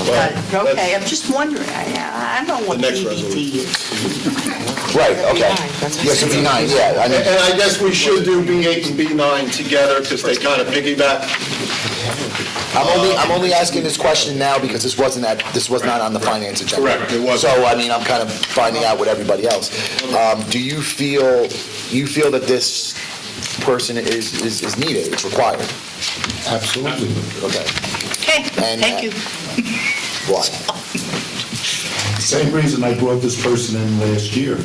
Well, that's- Okay, I'm just wondering, I, I know what The next DVT resolution. is. Right, okay. that's- Yes, it'd be nine, yeah, I mean, And I guess we should do B8 and B9 together because they kind of piggyback. I'm only, I'm only asking this question now because this wasn't at, this was not on the finance agenda. Correct, it wasn't. So, I mean, I'm kind of finding out with everybody else. Um, do you feel, you feel that this person is, is is needed, it's required? Absolutely. Okay, Okay, And, uh, thank you. why? Same reason I brought this person in last year.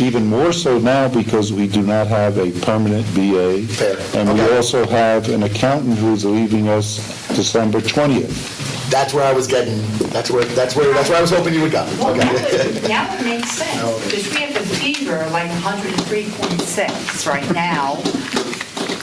Even more so now because we do not have a permanent BA. Fair. And we Okay. also have an accountant who's leaving us December 20th. That's where I was getting, that's where, that's where, that's where I was hoping you would go. Well, now Okay. it, now it makes sense, because we have a fever like 103.6 right now.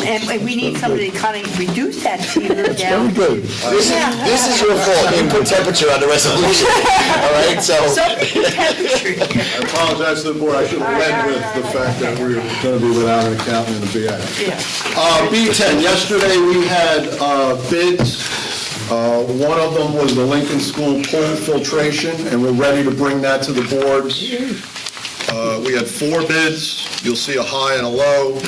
And and we need somebody to kind of reduce that fever down. Very good. This is, this is your fault, you put temperature on the resolution, all right? So, temperature, I apologize to the board, I should have led with the fact that we're going to be without an accountant and a BA. yeah. Uh, B10, yesterday we had uh, bids. Uh, One of them was the Lincoln School pool filtration, and we're ready to bring that to the board. Uh, We had four bids. You'll see a high and a low.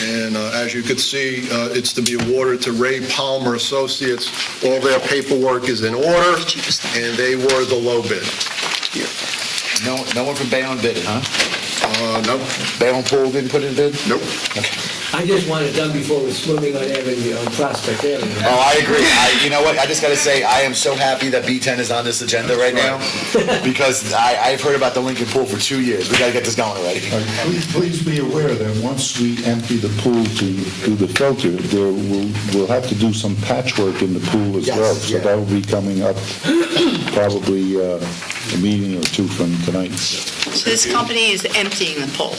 And uh, as you could see, uh, it's to be awarded to Ray Palmer Associates. All their paperwork is in order, and they were the low bid. No, no one from Bayonne bid it, huh? Uh, Nope, Bayonne Pool didn't put it in bid? nope. I just want it done before we're swimming on Avenue, on Prospect Avenue. Oh, I agree. I, you know what? I just got to say, I am so happy that B10 is on this agenda right now because I, I've heard about the Lincoln Pool for two years. We got to get this going already. Uh, Please, please be aware that once we empty the pool to do the filter, there will, we'll have to do some patchwork in the pool as well. Yes, So yeah. that will be coming up probably uh, a meeting or two from tonight. So this company is emptying the pool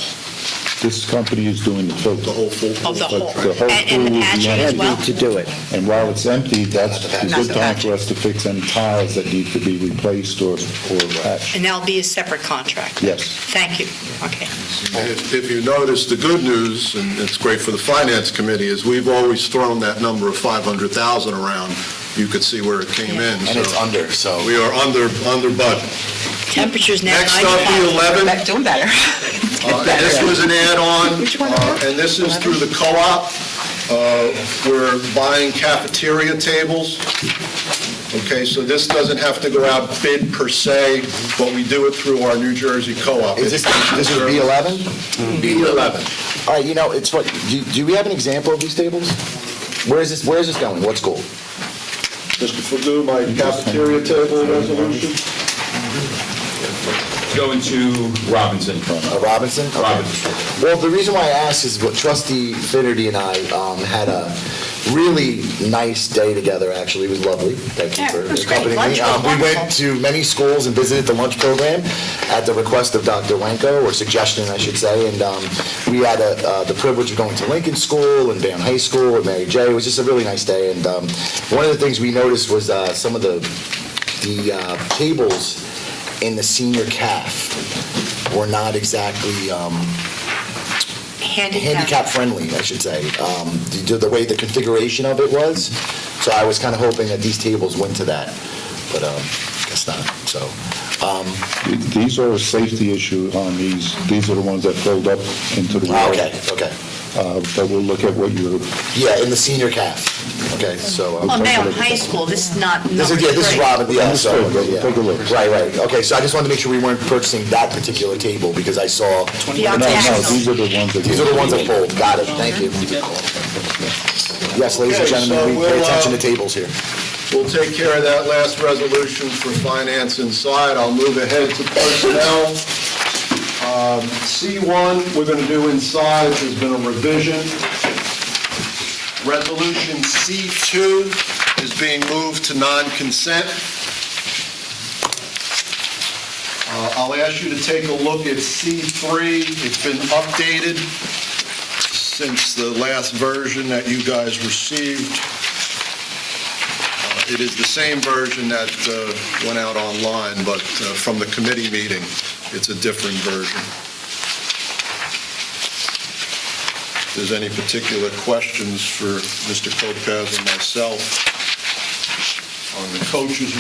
This company is doing the filter. The whole pool. of Oh, the whole, The whole and and pool the will be hatchery as well? empty. To do it. And while it's empty, that's a Not good the time patch. for us to fix any tiles that need to be replaced or, or patched. And that'll be a separate contract? Yes. Thank you, okay. And If if you notice, the good news, and it's great for the Finance Committee, is we've always thrown that number of 500,000 around. You could see where it came in. And it's so under, so. We are under, under budget. Uh, Temperature's now Next up, 95. the 11. Doing better. Uh, and This was an add-on, uh, and this is through the co-op. Uh, We're buying cafeteria tables. Okay, so this doesn't have to go out bid per se, but we do it through our New Jersey co-op. Is this, this is B11? Mm-hmm. B11. All right, you know, it's what, do, do we have an example of these tables? Where is this, where is this going? What school? Mr. Pagoo, my cafeteria table resolution? Going to Robinson. Uh, Robinson? Okay. Robinson. Well, the reason why I asked is what trustee Finerty and I um, had a really nice day together, actually. It was lovely. Thank you Yeah, for it was great. accompanying Lunch me. was Um, We went wonderful. to many schools and visited the lunch program at the request of Dr. Wenko, or suggestion, I should say. And um, we had uh, uh, the privilege of going to Lincoln School and Bayonne High School and Mary J. It was just a really nice day. And um, one of the things we noticed was uh, some of the, the uh, tables in the senior calf were not exactly um, handicap friendly, I should say, um, the, the way the configuration of it was. So I was kind of hoping that these tables went to that, but um, guess not. So um, These are a safety issue on these, these are the ones that filled up into the water. Ah, okay, okay, Uh, But we'll look at what you're, yeah, in the senior calf. Okay, so um, Well, now in Oh, high school, this is not number this is yeah, this is three. Robin. Yeah, so Understood, but we'll yeah. take a look. Right, right. Okay, so I just wanted to make sure we weren't purchasing that particular table because I saw The no, no, octagonal. these are the ones that. these are the ones that fold. Got it. Thank you. Yes, ladies and Okay, so gentlemen, we pay we'll, uh, attention to tables here. We'll take care of that last resolution for finance inside. I'll move ahead to personnel. Um, C1, we're going to do inside, there's been a revision. Resolution C2 is being moved to non-consent. Uh, I'll ask you to take a look at C3. It's been updated since the last version that you guys received. It is the same version that uh, went out online, but uh, from the committee meeting, it's a different version. If there's any particular questions for Mr. Lopez or myself, on the coach's